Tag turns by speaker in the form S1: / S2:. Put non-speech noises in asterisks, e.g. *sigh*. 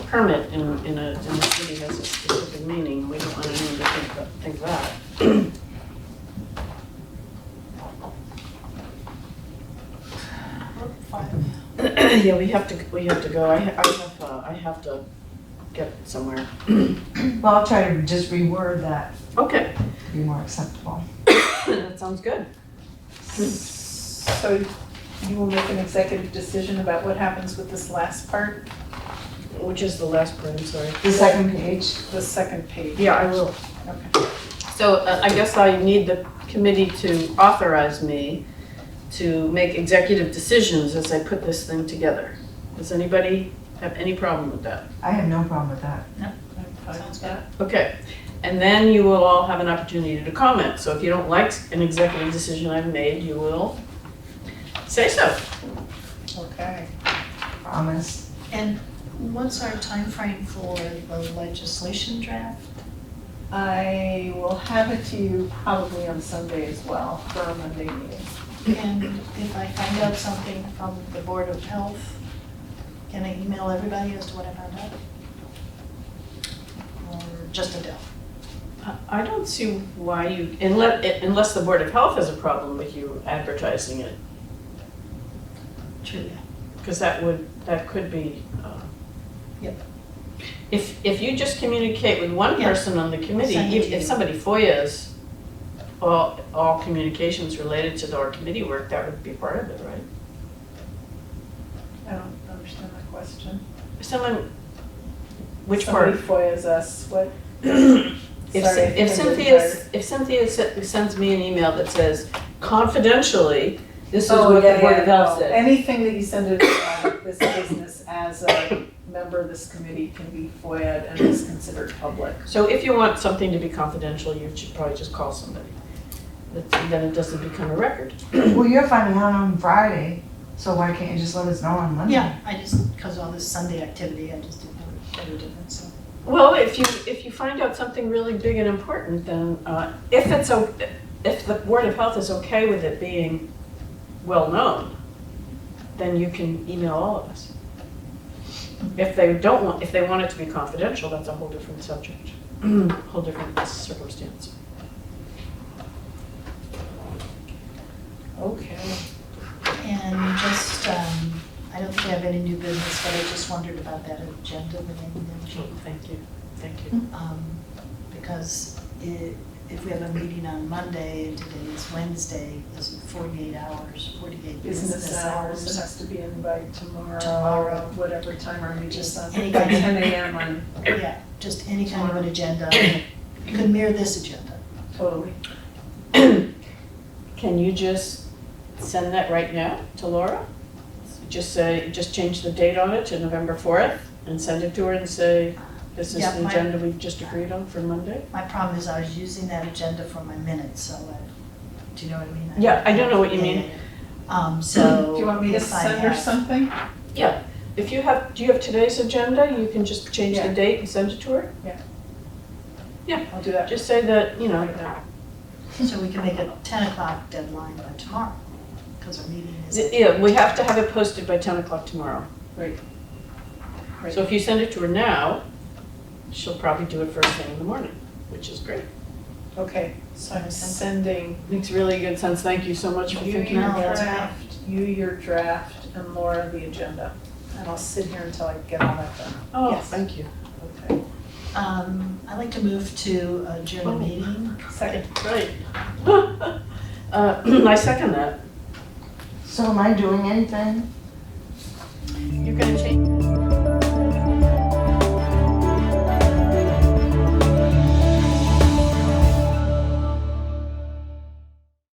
S1: permit in, in a, in the city has a specific meaning, we don't want anyone to think, that- think that. *clears throat* Yeah, we have to, we have to go, I, ha- I have, uh, I have to get somewhere.
S2: Well, I'll try to just reword that
S1: *clears throat* Okay,
S2: to be more acceptable.
S1: that sounds good.
S3: So you will make an executive decision about what happens with this last part,
S1: Which is the last part, I'm sorry.
S2: The second page,
S3: the second page?
S1: Yeah, I will.
S3: Okay.
S1: So uh, I guess I need the committee to authorize me to make executive decisions as I put this thing together. Does anybody have any problem with that?
S2: I have no problem with that.
S3: Sounds good.
S1: Okay, and then you will all have an opportunity to comment. So if you don't like an executive decision I've made, you will say so.
S3: Okay.
S2: Promise.
S4: And what's our timeframe for the legislation draft?
S3: I will have it to you probably on Sunday as well, for our Monday meeting.
S4: And if I find out something from the Board of Health, can I email everybody as to what I found out? Or just Adele?
S1: I- I don't see why you, unless, unless the Board of Health has a problem with you advertising it,
S4: True.
S1: because that would, that could be. uh,
S4: Yep.
S1: If, if you just communicate with one
S4: Yeah.
S1: person on the committee,
S4: Send it
S1: if
S4: to
S1: if
S4: you.
S1: somebody FOIA's all, all communications related to our committee work, that would be part of it, right?
S3: I don't understand the question.
S1: Someone, which part?
S3: *coughs* Somebody FOIA's us, what?
S1: If
S3: Sorry,
S1: Cyn- If
S3: I'm really
S1: Cynthia,
S3: tired.
S1: if Cynthia se- sends me an email that says confidentially, this is
S3: Oh,
S1: what the
S3: yeah,
S1: Board
S3: yeah,
S1: of Health
S3: no.
S1: said.
S3: Anything that you send to uh, this business as a member of this committee can be FOIA'd and is considered public.
S1: So if you want something to be confidential, you should probably just call somebody. That's- Then it doesn't become a record.
S2: Well, you're finding out on Friday, so why can't you just let us know on Monday?
S4: Yeah, I just, because all this Sunday activity, I just didn't know any difference, so.
S1: Well, if you, if you find out something really big and important, then uh, if it's, o- if the Board of Health is okay with it being well-known, then you can email all of us. If they don't want, if they want it to be confidential, that's a whole different subject, *clears throat* whole different circumstance.
S3: Okay.
S4: And just, um, I don't think I have any new business, but I just wondered about that agenda within the
S1: Sure, Thank you, thank you.
S4: um, because i if we have a meeting on Monday and today is Wednesday, is it forty-eight hours, forty-eight
S3: Business hours, it has to be in by tomorrow,
S4: Tomorrow.
S3: whatever time our meeting is on, by
S4: Any kind of-
S3: ten AM on,
S4: Yeah, just any kind of an agenda, you could mirror this agenda.
S3: totally.
S1: *coughs* Can you just send that right now to Laura? Just say, just change the date on it to November 4th and send it to her and say, this is
S4: Yeah,
S1: the
S4: my-
S1: agenda we've just agreed on for Monday?
S4: My problem is I was using that agenda for my minutes, so, I- do you know what I mean?
S1: Yeah, I do know what you
S4: Yeah,
S1: mean.
S4: yeah, yeah. Um, so.
S3: Do you want me to
S4: if I
S3: send her
S4: have-
S3: something?
S1: Yeah, if you have, do you have today's agenda? You can just change the
S3: Yeah.
S1: date and send it to her?
S3: I'll do that.
S1: Just say that, you know,
S4: So we can make a ten o'clock deadline by tomorrow, because our meeting is.
S1: th- yeah, we have to have it posted by 10 o'clock tomorrow.
S3: Right. Right.
S1: So if you send it to her now, she'll probably do it first thing in the morning, which is great.
S3: Okay, so I'm sending
S1: Makes really good sense. Thank you so much
S3: you
S1: for
S3: your
S1: thinking about that.
S3: draft, you your draft, and Laura the agenda. And I'll sit here until I get all that done.
S1: Oh,
S4: Yes.
S1: thank you.
S3: Okay.
S4: Um, I'd like to move to adjourn the
S1: Oh.
S4: meeting.
S3: Second.
S1: Right. *laughs* Uh, *clears throat* I second that.
S2: So am I doing anything?
S1: You're gonna change.